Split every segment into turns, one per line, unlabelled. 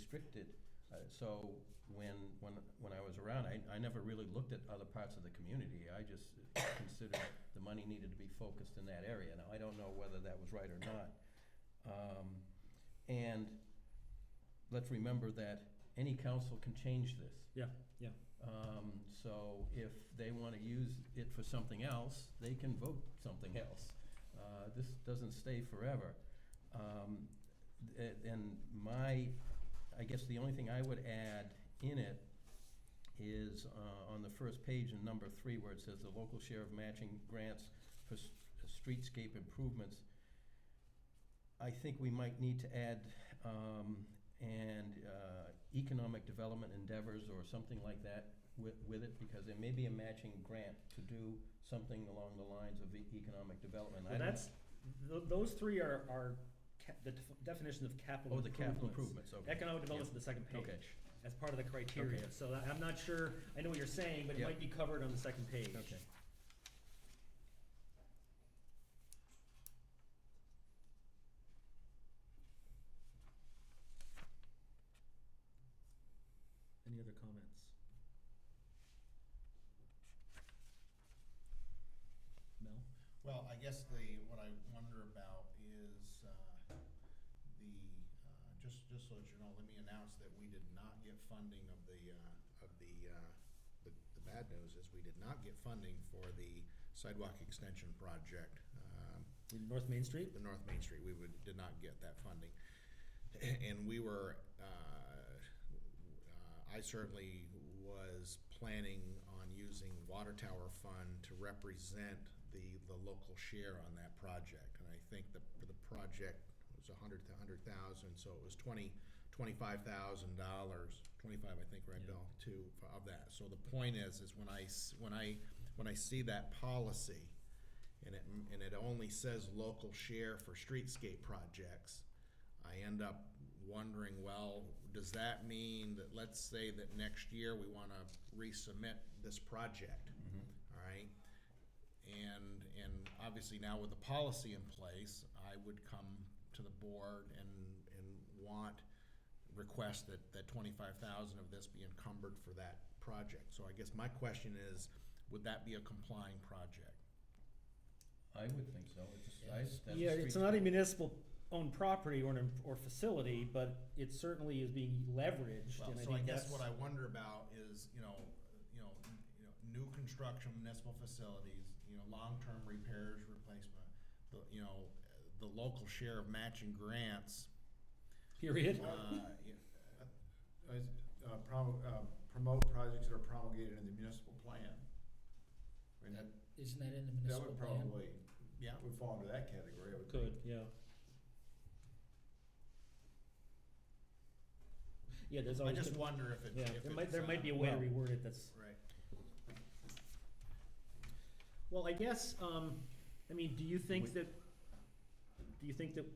restricted. Uh, So when, when, when I was around, I, I never really looked at other parts of the community. I just considered the money needed to be focused in that area. Now, I don't know whether that was right or not. Um, And let's remember that any council can change this.
Yeah, yeah.
Um, So if they want to use it for something else, they can vote something else. Uh, This doesn't stay forever. Um, th- And my, I guess the only thing I would add in it is uh, on the first page in number three, where it says the local share of matching grants for s- streetscape improvements. I think we might need to add, um, and uh, economic development endeavors or something like that with, with it, because there may be a matching grant to do something along the lines of e- economic development. I
Well,
don't-
that's, th- those three are, are ca- the def- definition of capital
Oh, the capital
improvements.
improvements, okay.
Economic development's the second
Okay.
page, as part of the criteria.
Okay.
So I- I'm not sure, I know what you're saying, but it
Yeah.
might be covered on the second page.
Okay.
Any other comments? Mel?
Well, I guess the, what I wonder about is uh, the, uh, just, just so that you know, let me announce that we did not get funding of the, uh, of the, uh, the the bad news is we did not get funding for the sidewalk extension project, um,
North Main Street?
the North Main Street. We would, did not get that funding. And we were, uh, uh, I certainly was planning on using Water Tower Fund to represent the, the local share on that project. And I think the, the project was a hundred, a hundred thousand, so it was twenty, twenty-five thousand dollars, twenty-five, I think, right,
Yeah.
Bill, to, for- of that. So the point is, is when I, s- when I, when I see that policy, and it, and it only says local share for streetscape projects, I end up wondering, well, does that mean that, let's say that next year we want to resubmit this project, all right? And, and obviously now with the policy in place, I would come to the board and, and want, request that, that twenty-five thousand of this be encumbered for that project. So I guess my question is, would that be a complying project?
I would think so. It's, I, that's a
Yeah, it's
street-
not a municipal-owned property or an, or facility, but it certainly is being leveraged,
Well,
and I
so I
think
guess
that's.
what I wonder about is, you know, you know, you know, new construction municipal facilities, you know, long-term repairs, replacement, the, you know, uh, the local share of matching grants.
Period.
uh, yeah,
as, uh, prom- uh, promote projects that are promulgated in the municipal plan. I mean, that,
Isn't that in the
that would
municipal plan?
probably,
Yeah,
would fall into that category, I would think.
Could, yeah. Yeah, there's
I
always.
just
good-
wonder if it,
Yeah,
if it's.
there might, there might be a
uh,
way to
well-
reword it that's,
Right.
well, I guess, um, I mean, do you think that, do you think that,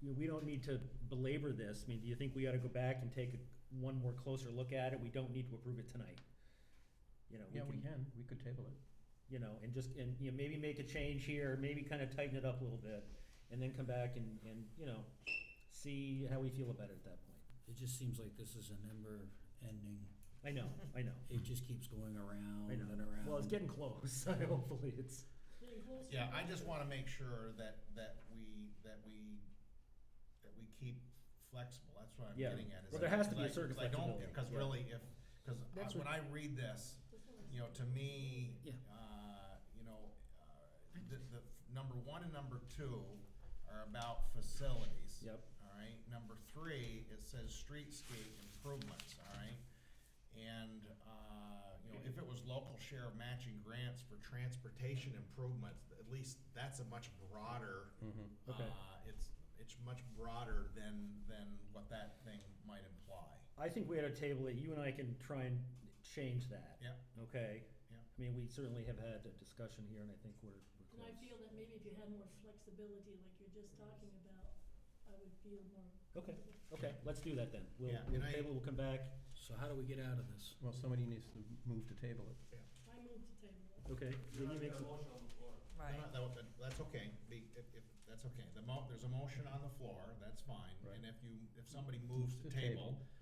you know, we don't need to belabor this? I mean, do you think we ought to go back and take a- one more closer look at it? We don't need to approve it tonight. You know, we
Yeah, we
can,
can, we could table it.
you know, and just, and, you know, maybe make a change here, maybe kind of tighten it up a little bit, and then come back and, and, you know, see how we feel about it at that point.
It just seems like this is a never ending,
I know, I know,
it just keeps going around
I
and
know.
around.
Well, it's getting close, hopefully it's,
Yeah, I just wanna make sure that, that we, that we, that we keep flexible, that's what I'm
Yeah.
getting at. is
Well, there has to be a
because I-
certain
because I don't-
flexibility,
Because
yeah.
really, if,
That's
because when
what-
I read this, you know, to me,
Yeah.
uh, you know, uh, the, the, f- number one and number two are about facilities.
Yep.
All right, number three, it says streetscape improvements, all right? And, uh, you know, if it was local share of matching grants for transportation improvements, at least that's a much broader,
Okay.
uh, it's, it's much broader than, than what that thing might imply.
I think we ought to table it, you and I can try and change that.
Yeah,
Okay,
yeah.
I mean, we certainly have had a discussion here, and I think we're, we're
And I feel
close.
that maybe if you had more flexibility, like you're just talking about, I would feel more.
Okay.
comfortable.
Okay, let's do that then, we'll,
Yeah,
we'll
and I-
table, we'll come back,
So how do we get out of this?
Well, somebody needs to move to table it.
I move to table it.
okay? Did you make some-
No, no, that would- That's okay, The- if, if, that's okay, the mo, there's a motion on the floor, that's fine,
Right.
and if you, if somebody moves
To
to table,
table.